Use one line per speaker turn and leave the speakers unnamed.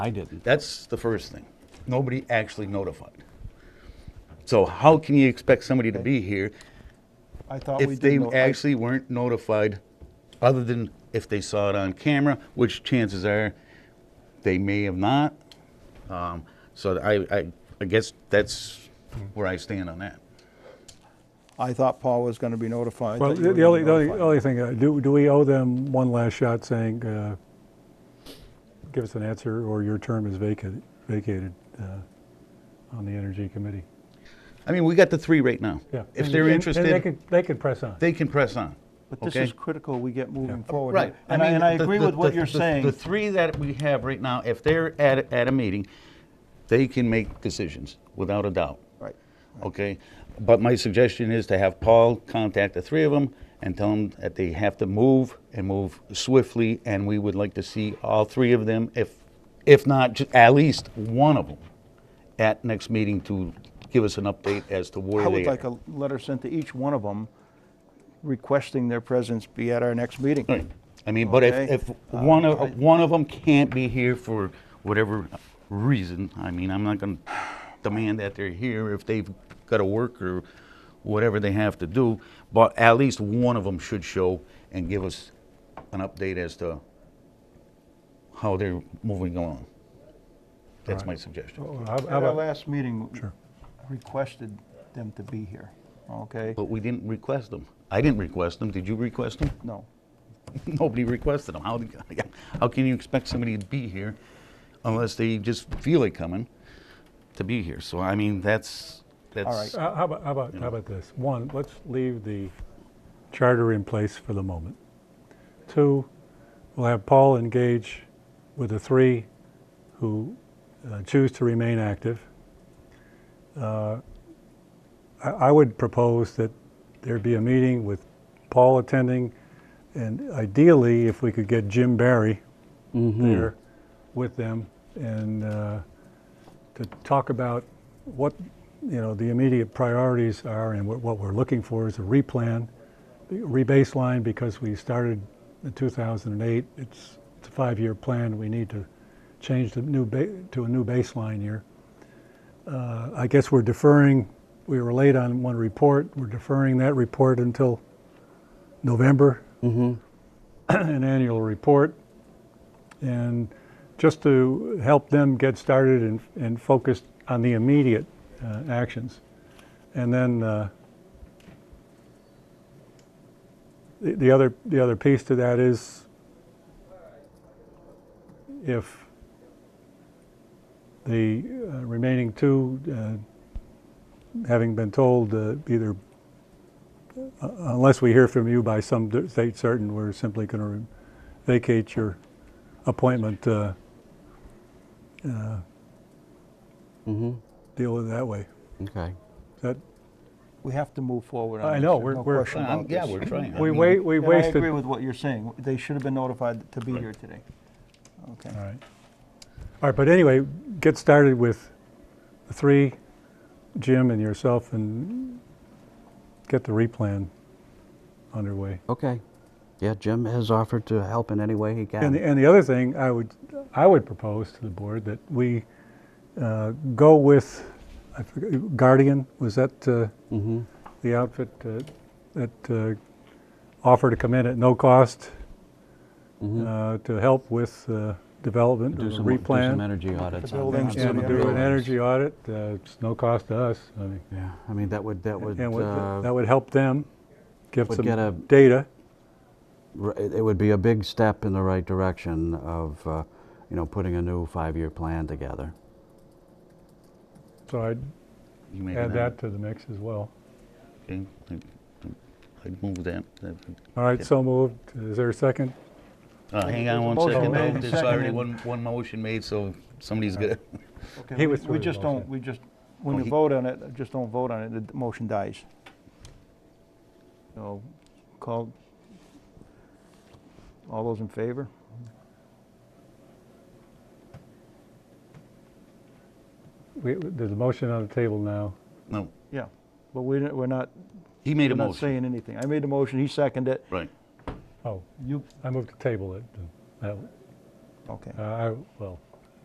I didn't.
That's the first thing. Nobody actually notified. So how can you expect somebody to be here
I thought we
if
did.
they
know- I-
actually weren't notified, other than if they saw it on camera, which chances are they may have not. Um, So I, I, I guess that's where I stand on that.
I thought Paul was going to be notified.
Well,
that you
the
were
the only, the only-
notified.
only thing, uh, do, do we owe them one last shot saying, uh, give us an answer or your term is vacated, vacated uh, on the Energy Committee?
I mean, we got the three right now.
Yeah.
If
And-
they're
and- and They
interested,
could, they could press on.
they can press on.
But this
okay?
is critical, we get moving forward.
Right.
And I,
mean,
and I
the-
agree
the-
with what
the-
you're
the- The
saying.
three that we have right now, if they're at, a- at a meeting, they can make decisions, without a doubt.
Right.
Okay? But my suggestion is to have Paul contact the three of them and tell them that they have to move and move swiftly, and we would like to see all three of them, if, if not, ju- at least one of them, at next meeting to give us an update as to where
I
they are.
would like a letter sent to each one of them requesting their presence be at our next meeting.
Right. I mean, but
Okay.
if, if one of, one of them can't be here for whatever reason, I mean, I'm not gonna demand that they're here if they've gotta work or whatever they have to do, but at least one of them should show and give us an update as to how they're moving along. That's my suggestion.
Well, how- how
At our
about-
last meeting, requested them to be here, okay?
But we didn't request them. I didn't request them. Did you request them?
No.
Nobody requested them. How, how can you expect somebody to be here unless they just feel it coming to be here? So, I mean, that's, that's,
Uh, How about, how about, how about this? One, let's leave the charter in place for the moment. Two, we'll have Paul engage with the three who uh, choose to remain active. Uh, I, I would propose that there be a meeting with Paul attending, and ideally, if we could get Jim Barry there with them and uh, to talk about what, you know, the immediate priorities are and what, what we're looking for is a replan, rebaseline, because we started in 2008. It's, it's a five-year plan. We need to change the new ba- to a new baseline year. Uh, I guess we're deferring, we were late on one report. We're deferring that report until November. An annual report. And just to help them get started and, and focused on the immediate uh, actions. And then uh, the, the other the other piece to that is if the uh, remaining two, uh, having been told uh, either uh, unless we hear from you by some d- date certain, we're simply going to re- vacate your appointment, uh, uh, deal with it that way.
Mm-hmm. Okay.
That,
We have to move forward on
I
this.
know,
There's
we're-
no
we're-
question
Um,
about
yeah,
this.
we're trying. I
we
mean,
wa- we
And I
wasted.
agree with what you're saying. They should have been notified to be here today. Okay.
All right. All right, but anyway, get started with the three, Jim and yourself, and get the replan underway.
Okay. Yeah, Jim has offered to help in any way he
And the,
can.
and the other thing I would, I would propose to the board that we uh, go with, I forget, Guardian, was that uh,
Mm-hmm.
the outfit uh, that uh, offered to come in at no cost uh, to help with uh, development
Mm-hmm. Do
of the
some, do some
replan?
energy audits. on the-
buildings,
on some
And
of the
do an
buildings.
energy audit, uh, it's no cost to us, I mean,
Yeah, I mean, that would, that would,
and would- that
uh,
would help them, give
would
some
get a-
data.
r- it it would be a big step in the right direction of, uh, you know, putting a new five-year plan together.
So I'd
you making
add that to the mix as well.
Okay, I- I'd move that. That-
All right, so moved, is there a second?
Uh, hang
there's a
on one
motion
second,
made
though.
and
There's already
seconded.
one, one motion made, so somebody's gonna,
Okay,
He
we-
withdrew
We
his
just
motion.
don't, we just, when
Well,
you
he-
vote on it, just don't vote on it, the motion dies. So, call, all those in favor?
We, there's a motion on the table now.
no,
Yeah, but we didn't, we're not,
he made
we're
a
not
motion.
saying anything. I made the motion, he seconded it.
Right.
Oh,
You,
I moved to table it. uh, that-
okay.
uh, I, well,